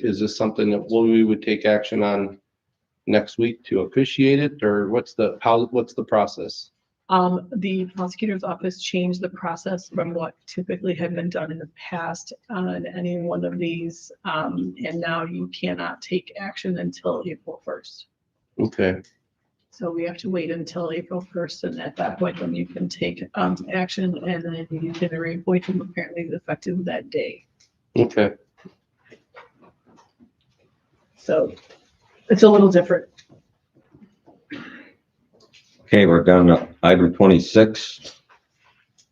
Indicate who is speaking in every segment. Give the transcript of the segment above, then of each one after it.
Speaker 1: Is this something that we would take action on next week to officiate it, or what's the, how, what's the process?
Speaker 2: Um, the prosecutor's office changed the process from what typically had been done in the past on any one of these. Um, and now you cannot take action until April first.
Speaker 1: Okay,
Speaker 2: So we have to wait until April first and at that point then you can take, um, action and then you can reappoint them apparently effective that day.
Speaker 1: okay,
Speaker 2: So it's a little different.
Speaker 3: Okay, we're down to item twenty-six.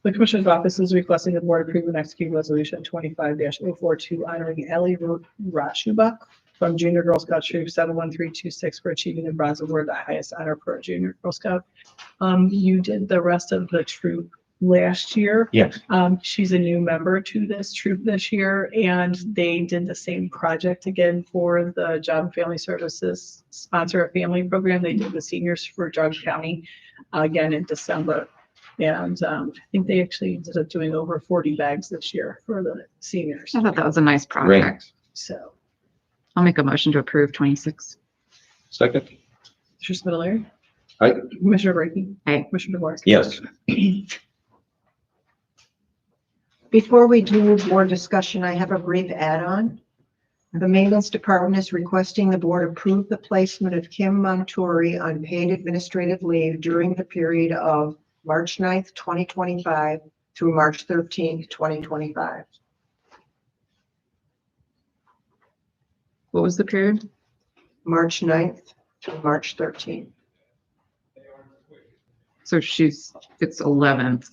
Speaker 2: The Commissioner's Office is requesting the Board approve and execute Resolution twenty-five 42 honoring Ellie Ru- Rashubak from Junior Girl Scout Troop seven one three two six for achieving the Bronze Award, the highest honor for a Junior Girl Scout. Um, you did the rest of the troop last year.
Speaker 3: Yes.
Speaker 2: Um, she's a new member to this troop this year, and they did the same project again for the Job and Family Services Sponsor a Family Program. They did the seniors for Drug County uh, again in December. And um, I think they actually ended up doing over forty bags this year for the seniors.
Speaker 4: I thought that was a nice project.
Speaker 2: So,
Speaker 4: I'll make a motion to approve twenty-six.
Speaker 1: second,
Speaker 2: Mr. Spitaleri.
Speaker 1: Aye.
Speaker 2: Commissioner Brackey.
Speaker 4: Aye.
Speaker 2: Commissioner DeVore.
Speaker 3: Yes,
Speaker 5: Before we do more discussion, I have a brief add-on. The Maintenance Department is requesting the board approve the placement of Kim Montori on paid administrative leave during the period of March 9th, twenty twenty-five through March thirteenth, twenty twenty-five.
Speaker 4: What was the period?
Speaker 5: March 9th through March thirteenth.
Speaker 4: So she's, it's eleventh.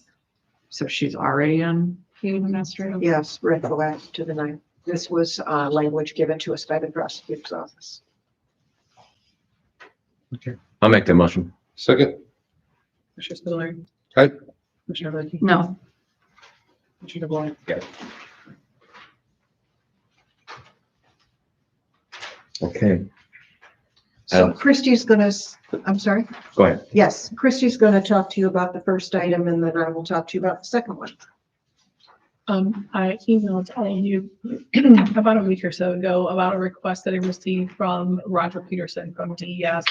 Speaker 4: So she's already on paid administrative.
Speaker 5: Yes, retroactive to the 9th. This was, uh, language given to us by the prosecutor's office.
Speaker 3: I'll make the motion.
Speaker 1: second,
Speaker 2: Commissioner Spitaleri.
Speaker 1: Aye.
Speaker 2: Commissioner Brackey.
Speaker 4: No,
Speaker 2: Commissioner DeVore.
Speaker 3: Okay,
Speaker 5: So
Speaker 3: Um,
Speaker 5: Christie's gonna, s- I'm sorry?
Speaker 3: go ahead.
Speaker 5: Yes, Christie's going to talk to you about the first item and then I will talk to you about the second one.
Speaker 2: Um, I emailed all of you about a week or so ago about a request that I received from Roger Peterson from DES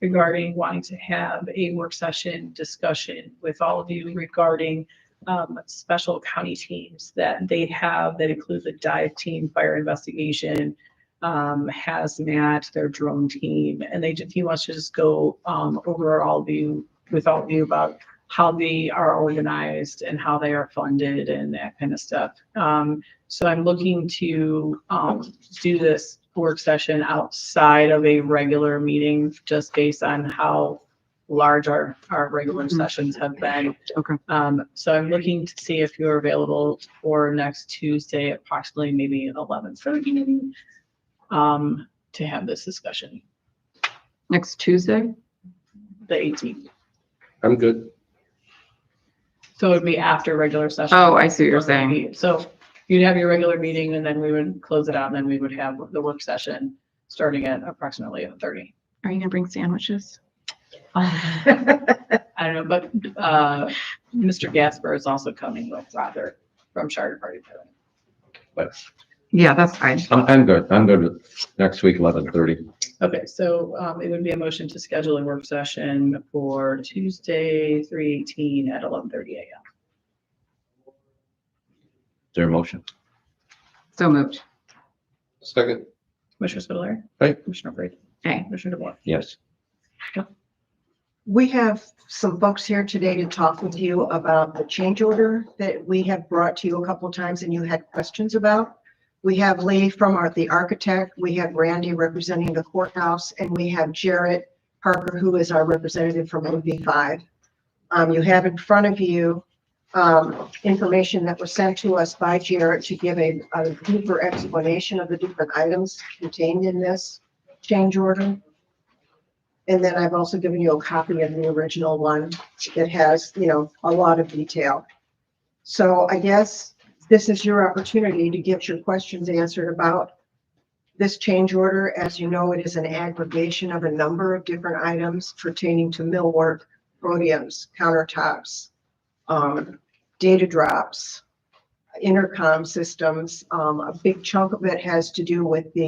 Speaker 2: regarding wanting to have a work session discussion with all of you regarding um, special county teams that they have that include the dive team, fire investigation, um, hazmat, their drone team, and they, just- he wants to just go um, over all of you, with all of you about how they are organized and how they are funded and that kind of stuff. Um, so I'm looking to, um, do this work session outside of a regular meeting, just based on how large our, our regular
Speaker 4: Mhm.
Speaker 2: sessions have been.
Speaker 4: okay.
Speaker 2: Um, so I'm looking to see if you're available for next Tuesday, approximately maybe eleven thirty, um, to have this discussion,
Speaker 4: Next Tuesday?
Speaker 2: the eighteenth.
Speaker 1: I'm good.
Speaker 2: So it'd be after regular session.
Speaker 4: Oh, I see what you're saying.
Speaker 2: So you'd have your regular meeting and then we would close it out and then we would have the work session starting at approximately eight thirty.
Speaker 4: Are you gonna bring sandwiches?
Speaker 2: I don't know, but, uh, Mr. Gasper is also coming with Roger from Charter Party. Building.
Speaker 4: Yeah, that's fine.
Speaker 3: I'm, I'm good. I'm good with next week, eleven thirty.
Speaker 2: Okay, so, um, it would be a motion to schedule a work session for Tuesday, three eighteen at eleven thirty AM.
Speaker 3: Their motion.
Speaker 4: So moved.
Speaker 1: Second,
Speaker 2: Commissioner Spudler.
Speaker 1: Aye.
Speaker 2: Commissioner Brady.
Speaker 4: Okay.
Speaker 2: Commissioner DeBoer.
Speaker 3: Yes.
Speaker 5: We have some folks here today to talk with you about the change order that we have brought to you a couple of times and you had questions about. We have Lee from our, the architect, we have Randy representing the courthouse, and we have Jarrett Parker, who is our representative from MV five. Um, you have in front of you, um, information that was sent to us by Jarrett to give a, a deeper explanation of the different items contained in this change order. And then I've also given you a copy of the original one that has, you know, a lot of detail. So I guess this is your opportunity to get your questions answered about this change order. As you know, it is an aggregation of a number of different items pertaining to millwork, podiums, countertops, um, data drops, intercom systems. Um, a big chunk of it has to do with the